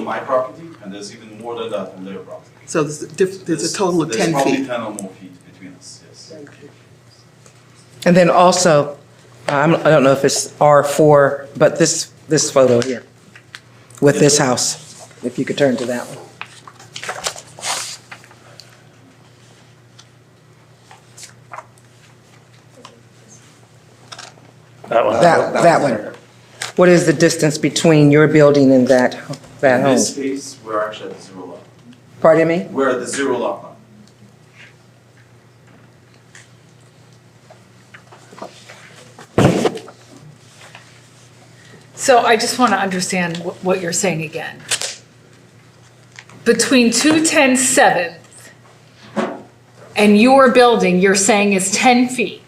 my property, and there's even more than that on their property. So there's, diff- there's a total of There's ten probably feet. ten or more feet between us, yes. And then also, I'm- I don't know if it's R4, but this, this photo here with this house, if you could turn to that one. That one. That, that one. What is the distance between your building and that, that In home? this case, we're actually at the zero lot. Pardon me? We're at the zero lot line. So I just want to understand wh- what you're saying again. Between 210 7th and your building, you're saying is 10 feet.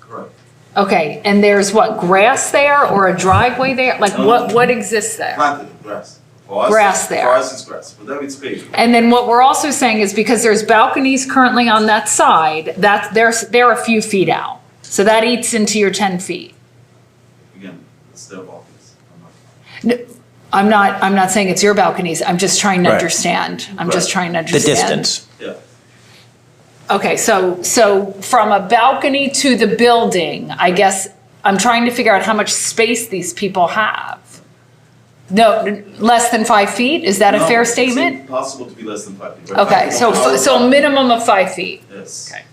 Correct. Okay, and there's what, grass there or a driveway there? Like what, No. what exists there? Planted grass. For us- Grass there. For us, it's grass, for them, it's paved. And then what we're also saying is because there's balconies currently on that side, that, there's, they're a few feet out. So that eats into your 10 feet. Again, it's their balconies. I'm not- N- I'm not, I'm not saying it's your balconies, I'm just trying to Right. understand. I'm just Right. trying to The understand. distance. Yeah. Okay, so, so from a balcony to the building, I guess, I'm trying to figure out how much space these people have. No, n- less than five feet, is that a No, fair it's statement? Impossible to be less than five feet. We're Okay, five feet so, on our f- so a minimum of five feet, property. Yes. Okay.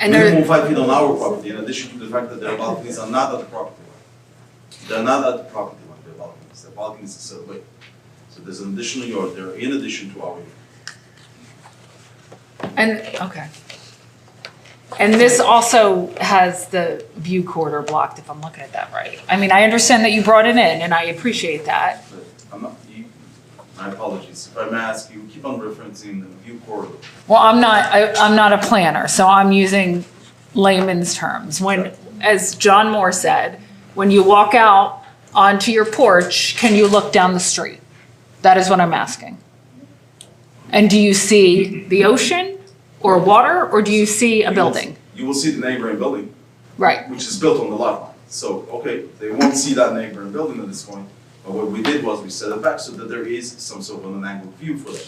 and Minimum they're, five feet on our property, in addition to the fact that their balconies are not at the property line. They're not at the property line, their balconies, their balconies are set away. So there's an additional yard there in addition to our yard. and, okay. And this also has the view corridor blocked, if I'm looking at that right. I mean, I understand that you brought it in, and I appreciate that. But I'm not, you, my apologies, if I may ask, you keep on referencing the view corridor. Well, I'm not, I, I'm not a planner, so I'm using layman's terms. When, as John Moore said, when you walk out onto your porch, can you look down the street? That is what I'm asking. And do you see the ocean or water, or do you see You a will- building? You will see the neighboring building, Right, which is built on the lot line. So, okay, they won't see that neighboring building at this point, but what we did was we set it back so that there is some sort of an angled view for them.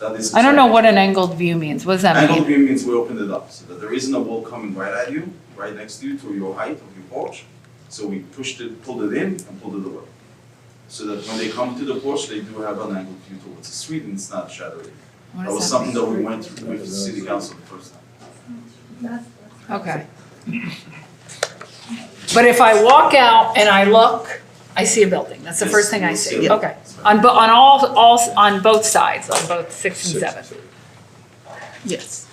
That is. I don't know what an angled view means, what does that Angled mean? view means we opened it up, so that there isn't a wall coming right at you, right next to you, to your height of your porch. So we pushed it, pulled it in and pulled it away. So that when they come to the porch, they do have an angled view towards the street and it's not shadowy. What That was does something that we went through with the city council the first time. mean? Okay. But if I walk out and I look, I see a building, that's the Yes, first thing I you'll see see, it. okay. On, bo- on all, all, on both sides, on both six and seven. Yes.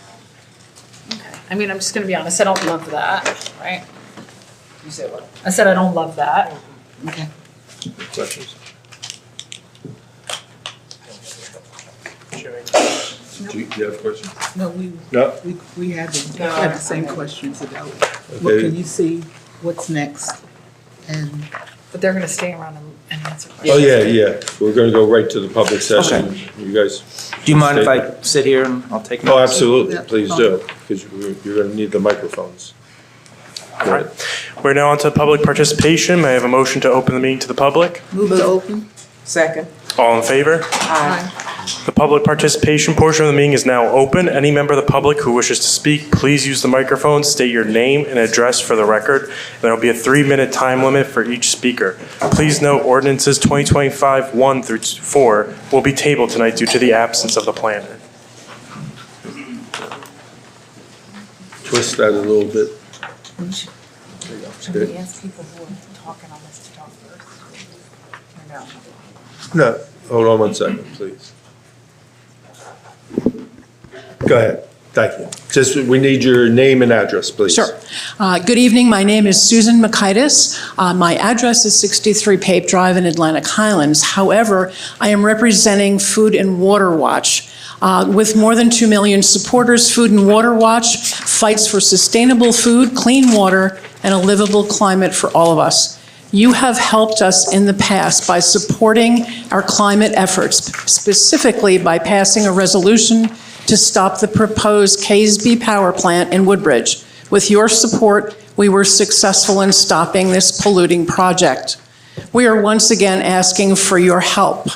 Okay. I mean, I'm just gonna be honest, I don't love that, right? I said I don't love that. Okay. Questions? Do you do you have questions? No, we, No? we, we had the, No, had the same I- questions about, well, can Okay. you see what's next? And But they're gonna stay around and and answer Oh, questions. yeah, yeah. We're going to go right to the public session. You guys, Do you mind if I sit here and I'll take? oh, notes? absolutely, Yeah. please do, because you're going to need the microphones. All right. We're now on to public participation. May I have a motion to open the meeting to the public? move it open. Second. All in favor? The public participation portion of the meeting is now open. Any member of the public who wishes to speak, please use the microphone, state your name and address for the record. There will be a three-minute time limit for each speaker. Please note ordinances 2025-1 through 4 will be tabled tonight due to the absence of the planner. Twist that a little bit. Should we ask people who are talking on this to talk first? Or no? No, hold on one second, please. Go ahead. Thank you. Just, we need your name and address, please. Sure. Uh, Good evening. My name is Susan Makaitis. Uh, My address is 63 Pape Drive in Atlantic Highlands. However, I am representing Food and Water Watch. Uh, With more than 2 million supporters, Food and Water Watch fights for sustainable food, clean water, and a livable climate for all of us. You have helped us in the past by supporting our climate efforts, specifically by passing a resolution to stop the proposed Casby Power Plant in Woodbridge. With your support, we were successful in stopping this polluting project. We are once again asking for your help.